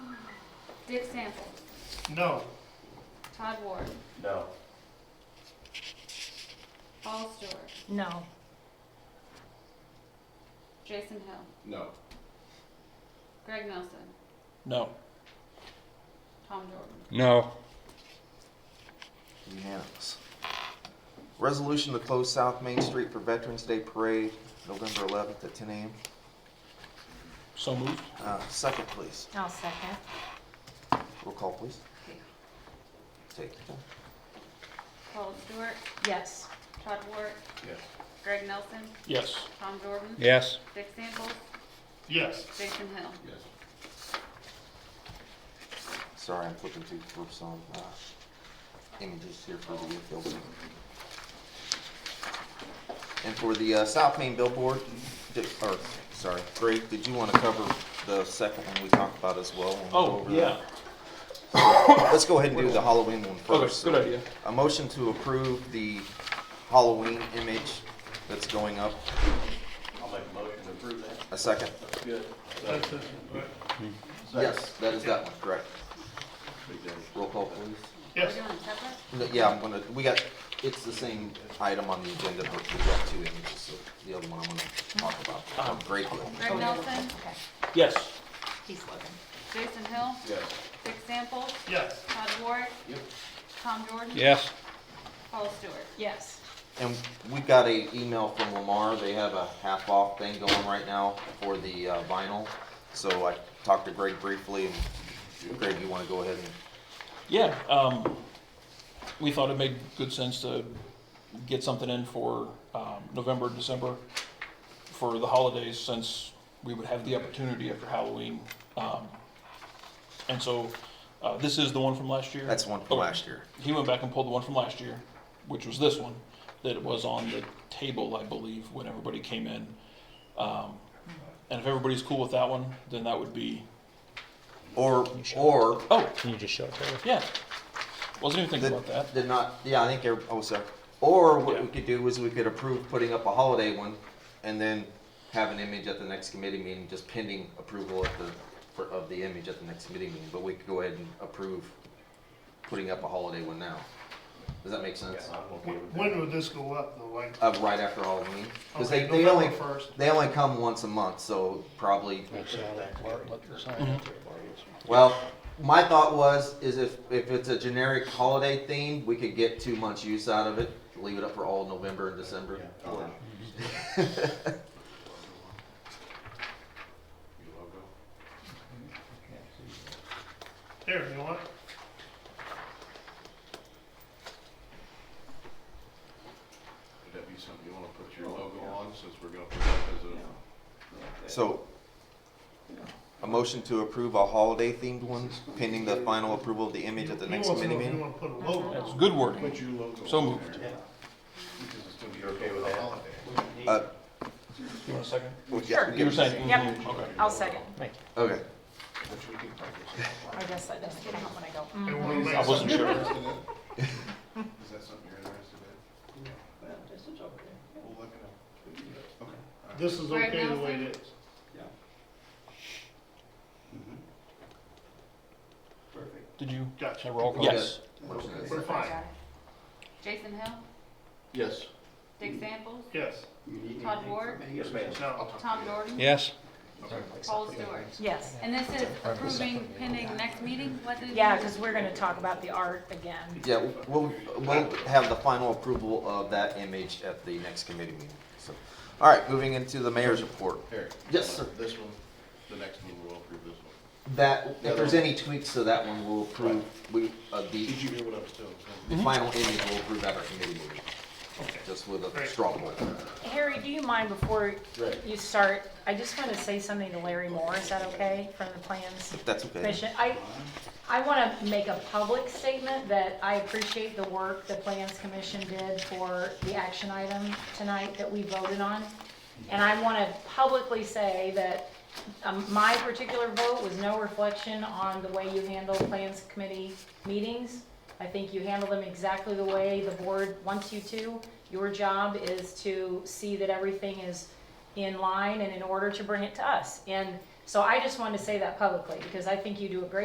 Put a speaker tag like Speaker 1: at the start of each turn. Speaker 1: Dick Sample,
Speaker 2: No.
Speaker 1: Todd Ward,
Speaker 3: No.
Speaker 1: Paul Stewart,
Speaker 4: No.
Speaker 1: Jason Hill,
Speaker 5: No.
Speaker 1: Greg Nelson,
Speaker 6: No.
Speaker 1: Tom Jordan.
Speaker 6: No.
Speaker 3: Unanimous. Resolution to close South Main Street for Veterans Day Parade, November 11th at 10 a.m.
Speaker 6: So moved.
Speaker 3: Uh, Second, please.
Speaker 4: I'll second.
Speaker 3: Roll call, please. Take your time.
Speaker 1: Paul Stewart,
Speaker 4: Yes.
Speaker 1: Todd Ward,
Speaker 5: Yes.
Speaker 1: Greg Nelson,
Speaker 6: Yes.
Speaker 1: Tom Jordan,
Speaker 6: Yes.
Speaker 1: Dick Sample,
Speaker 2: Yes.
Speaker 1: Jason Hill.
Speaker 5: Yes.
Speaker 3: Sorry, I'm flipping through for some uh, images here for the Field. And for the uh, South Main billboard, di- or, sorry, Greg, did you want to cover the second one we talked about as well? when we go
Speaker 6: Oh,
Speaker 3: over that?
Speaker 6: yeah.
Speaker 3: Let's go ahead and do the Halloween one
Speaker 6: Okay,
Speaker 3: first.
Speaker 6: good idea.
Speaker 3: A motion to approve the Halloween image that's going up.
Speaker 5: I'll make a motion to approve that.
Speaker 3: A second.
Speaker 5: That's good.
Speaker 2: That's it, right.
Speaker 3: Yes, that is that one, correct.
Speaker 5: Big day.
Speaker 3: Roll call, please.
Speaker 1: We're
Speaker 2: Yes.
Speaker 1: doing separate?
Speaker 3: No, Yeah, I'm gonna, we got, it's the same item on the agenda, but we've got two images, so the other one I'm gonna talk
Speaker 5: Uh-huh.
Speaker 3: about. a Great deal.
Speaker 1: Greg Nelson,
Speaker 4: Okay.
Speaker 6: Yes.
Speaker 4: He's looking.
Speaker 1: Jason Hill,
Speaker 5: Yes.
Speaker 1: Dick Sample,
Speaker 2: Yes.
Speaker 1: Todd Ward,
Speaker 5: Yep.
Speaker 1: Tom Jordan.
Speaker 6: Yes.
Speaker 1: Paul Stewart.
Speaker 4: Yes.
Speaker 3: And we got a email from Lamar, they have a half off thing going right now for the uh, vinyl. So I talked to Greg briefly, and Greg, you wanna go ahead and
Speaker 6: Yeah, um, we thought it made good sense to get something in for, um, November, December for the holidays, since we would have the opportunity after Halloween. Um, and so, uh, this is the one from last year.
Speaker 3: That's the one from
Speaker 6: Okay.
Speaker 3: last year.
Speaker 6: He went back and pulled the one from last year, which was this one, that was on the table, I believe, when everybody came in. Um, and if everybody's cool with that one, then that would be,
Speaker 3: Or, or,
Speaker 6: oh,
Speaker 7: Can you just show it to her?
Speaker 6: yeah. Wasn't even thinking about that.
Speaker 3: did, did not, yeah, I think, every- oh, sorry. Or what we
Speaker 6: Yeah.
Speaker 3: could do is we could approve putting up a holiday one and then have an image at the next committee meeting, just pending approval of the, for, of the image at the next committee meeting. But we could go ahead and approve putting up a holiday one now. Does that make sense?
Speaker 5: Yeah, I'm okay with
Speaker 2: When would this go up though, like?
Speaker 3: Of right after Halloween? Cause they,
Speaker 2: Okay,
Speaker 3: they only,
Speaker 2: November first.
Speaker 3: they only come once a month, so probably
Speaker 7: That's how that works. Let the sign up there, Barb.
Speaker 3: Well, my thought was, is if, if it's a generic holiday theme, we could get two months use out of it, leave it up for all November and December.
Speaker 5: Yeah, I'll- Your logo.
Speaker 2: There, you want?
Speaker 5: Would that be something you wanna put your logo on, since we're gonna put that as a,
Speaker 3: So, a motion to approve a holiday themed one pending the final approval of the image at the
Speaker 2: He
Speaker 3: next
Speaker 2: wants to know
Speaker 3: committee
Speaker 2: if You
Speaker 3: meeting?
Speaker 2: wanna put a logo?
Speaker 6: That's good wording.
Speaker 5: put your logo
Speaker 6: So
Speaker 5: on
Speaker 6: moved.
Speaker 5: there? Because it's gonna be okay with a holiday.
Speaker 3: Uh,
Speaker 6: You want a second?
Speaker 3: well, yeah,
Speaker 4: Sure.
Speaker 6: You were
Speaker 3: give-
Speaker 6: saying?
Speaker 4: Yep.
Speaker 6: mhm, Okay.
Speaker 4: I'll second.
Speaker 3: Okay,
Speaker 5: Which we can probably-
Speaker 4: I guess that doesn't count when I go,
Speaker 2: They
Speaker 4: mm.
Speaker 2: wanna make
Speaker 6: I wasn't
Speaker 2: something-
Speaker 6: sure.
Speaker 5: Is that something you're interested in? Yeah. We'll look it up. Okay.
Speaker 2: This is
Speaker 1: Greg
Speaker 2: okay the way
Speaker 1: Nelson.
Speaker 2: it is.
Speaker 6: Did you?
Speaker 2: Gotcha.
Speaker 6: Should I roll call?
Speaker 3: Okay.
Speaker 6: Yes.
Speaker 3: Motion
Speaker 2: We're
Speaker 3: is-
Speaker 4: I
Speaker 2: fine.
Speaker 4: got it.
Speaker 1: Jason Hill,
Speaker 5: Yes.
Speaker 1: Dick
Speaker 5: Mm-hmm.
Speaker 1: Sample,
Speaker 2: Yes.
Speaker 1: Todd Ward,
Speaker 5: Yes, ma'am.
Speaker 2: No.
Speaker 1: Tom Jordan.
Speaker 6: Yes.
Speaker 1: Paul Stewart.
Speaker 4: Yes.
Speaker 1: And this is approving pending next meeting, what did?
Speaker 4: Yeah,
Speaker 1: you-
Speaker 4: because we're going to talk about the art again.
Speaker 3: Yeah, we'll, we'll have the final approval of that image at the next committee meeting, so. All right, moving into the mayor's report.
Speaker 5: Eric?
Speaker 3: Yes, sir.
Speaker 5: This one, the next one, we'll approve this one.
Speaker 3: That, if there's any tweaks to that one, we'll approve, we, uh, the
Speaker 5: Did you hear what I was telling?
Speaker 3: The final image will approve at our committee meeting,
Speaker 2: Okay.
Speaker 3: just with a
Speaker 2: Great.
Speaker 3: straw poll.
Speaker 4: Harry, do you mind before
Speaker 5: Right.
Speaker 4: you start, I just want to say something to Larry Moore, is that okay, from the plans?
Speaker 3: That's okay.
Speaker 4: Commission, I, I want to make a public statement that I appreciate the work the Plans Commission did for the action item tonight that we voted on. And I want to publicly say that um, my particular vote was no reflection on the way you handle Plans Committee meetings. I think you handle them exactly the way the board wants you to. Your job is to see that everything is in line and in order to bring it to us. And so I just wanted to say that publicly, because I think you do a great